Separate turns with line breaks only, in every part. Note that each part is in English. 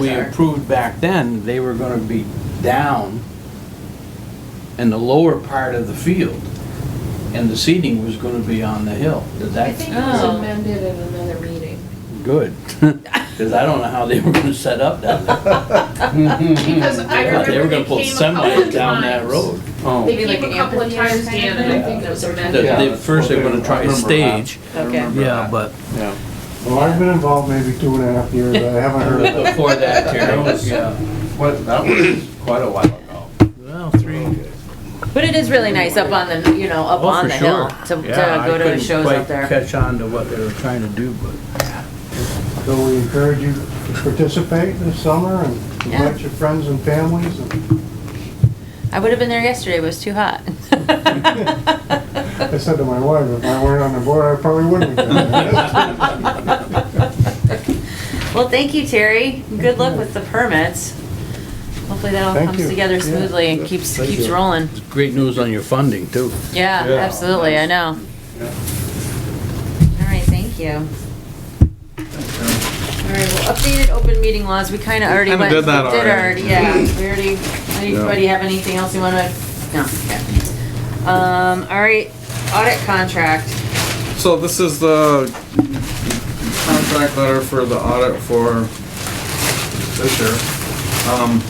we
Bizarre.
approved back then, they were gonna be down in the lower part of the field, and the seating was gonna be on the hill. Did
I
that,
think it was
Oh.
amended in another meeting.
good, because I don't know how they were gonna set up down there.
Because I
Mm. They thought They were gonna
remember they
put
came a couple
semis down that
times.
road. Oh.
They
Maybe like
came a
an
couple of
amphitheater
times,
kind of
Dan, and I
thing?
think it was amended.
That
Yeah,
they,
that's
first they were
what
gonna
they-
try
I
to
remember that.
stage,
I
Okay.
remember
yeah,
that.
but
Yeah. Well, I've been involved maybe two and a half years, but I haven't heard of it.
before that, Terry, was- uh,
yeah. What, that was quite a while ago.
well, three,
But it is really nice up on the, you know, up
Oh,
on
for
the hill
sure.
to, to
Yeah, I
go to
couldn't
shows
quite
up there.
Catch on to what they were trying to do, but
So we encourage you to participate this summer and invite your friends and families and
I would have been there yesterday, but it was too hot.
I said to my wife, if I weren't on the board, I probably wouldn't have been there.
Well, thank you, Terry. Good luck with the permits. Hopefully that all
Thank
comes
you.
together
Yeah.
smoothly and keeps,
Thank
keeps
you.
rolling.
it's great news on your funding, too.
Yeah,
Yeah.
absolutely, I know.
Yeah.
All right, thank you. All right, well, updated open meeting laws, we kinda already
kinda
went.
did that already.
Yeah, we already, anybody have anything else you wanna, no, okay. Um, all right, audit contract.
So this is the contract letter for the audit for this year. Um,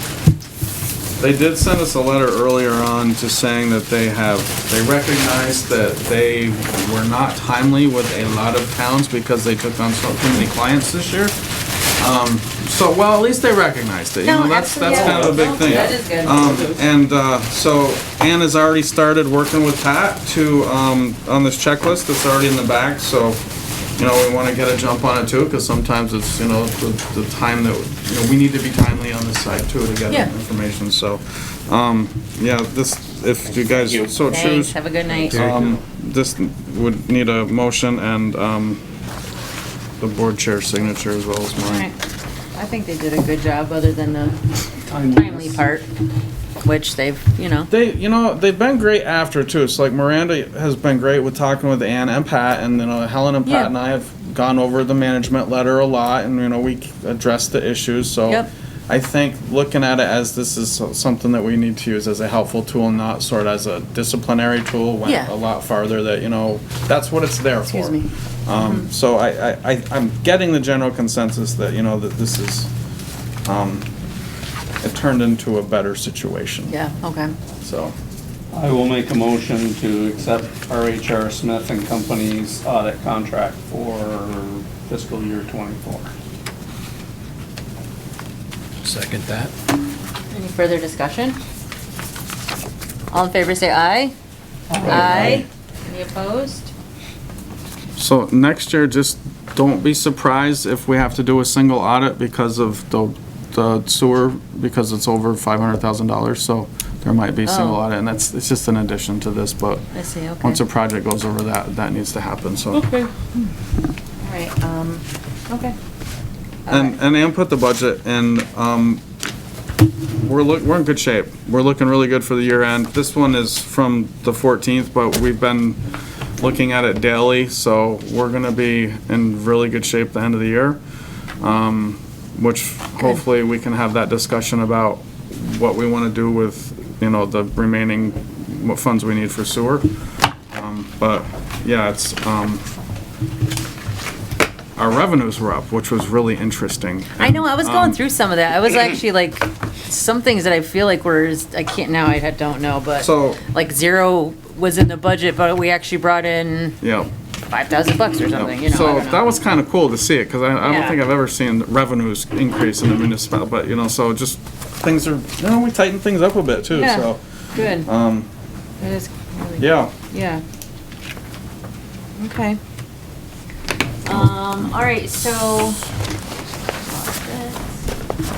They did send us a letter earlier on just saying that they have, they recognized that they were not timely with a lot of towns because they took on so many clients this year. Um, So, well, at least they recognized it, you know,
No,
that's, that's
absolutely,
kind of a
yeah.
big thing.
That is good.
Um, and, uh, so Ann has already started working with Pat to, um, on this checklist that's already in the back, so, you know, we wanna get a jump on it too, cause sometimes it's, you know, the, the time that, you know, we need to be timely on this side too to get
Yeah.
information, so, um, yeah, this, if you guys so
Thanks,
choose,
have a good night.
um, this would need a motion and, um, the board chair's signature as well as
All
mine.
right. I think they did a good job, other than the timely part, which they've, you know,
They, you know, they've been great after too. It's like Miranda has been great with talking with Ann and Pat, and you know Helen and Pat
Yeah.
and I have gone over the management letter a lot, and you know we addressed the issues. So
Yep.
I think looking at it as this is so- something that we need to use as a helpful tool, not sort of as a disciplinary tool. Went
Yeah.
a lot farther. That you know that's what it's there
excuse
for.
me. Mm-hmm.
Um, so I, I, I, I'm getting the general consensus that you know that this is. Um, it turned into a better situation.
Yeah, okay.
So.
I will make a motion to accept RHR Smith and Company's audit contract for fiscal year '24.
Second that.
Any further discussion? All in favor, say aye. Aye. Any opposed?
So next year, just don't be surprised if we have to do a single audit because of the the sewer, because it's over five hundred thousand dollars, so there might be a single
Oh.
audit, and that's, it's just an addition to this, but
I see, okay.
once a project goes over that, that needs to happen, so.
All right, um, okay.
And, and Ann put the budget in, um, we're look, we're in good shape. We're looking really good for the year end. This one is from the fourteenth, but we've been looking at it daily, so we're gonna be in really good shape the end of the year. Um, which hopefully we can have that discussion about what we wanna do with, you know, the remaining, what funds we need for sewer. Um, But, yeah, it's, um, our revenues were up, which was really interesting.
I know, I was going
Um,
through some of that. I was actually like, some things that I feel like were, I can't, now I don't know, but
So,
like zero was in the budget, but we actually brought in
yeah.
five thousand bucks or something, you know. I
So
don't know.
that was kind of cool to see it, because I, I
Yeah.
don't think I've ever seen revenues increase in a municipal, but, you know, so just, things are, you know, we tighten things up a bit too,
Yeah.
so,
Good.
um,
That is really
yeah.
Yeah. Okay. Um, all right, so.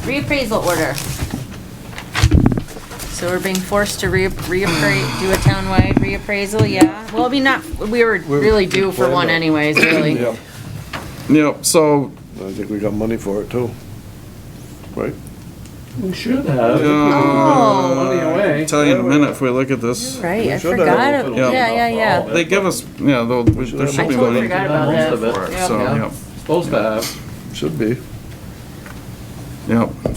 Reappraisal order. So we're being forced to re, reappraise, do a townwide reappraisal, yeah? Well, I mean, not, we were really due for one anyways, really.
Yeah.
Yep, so,
I think we got money for it too. Right?
We should have.
Oh,
uh,
Money
I'll
away.
tell you in a minute if we look at this.
Right, I
We should have.
forgot, it- yeah, yeah,
Yeah.
yeah.
They give us, yeah, though, we- there
I
should be
totally
money
forgot
Most
about
of
that.
it.
uh,
for it, so,
Yeah.
yep.
Supposed to have.
Should be.
Yep.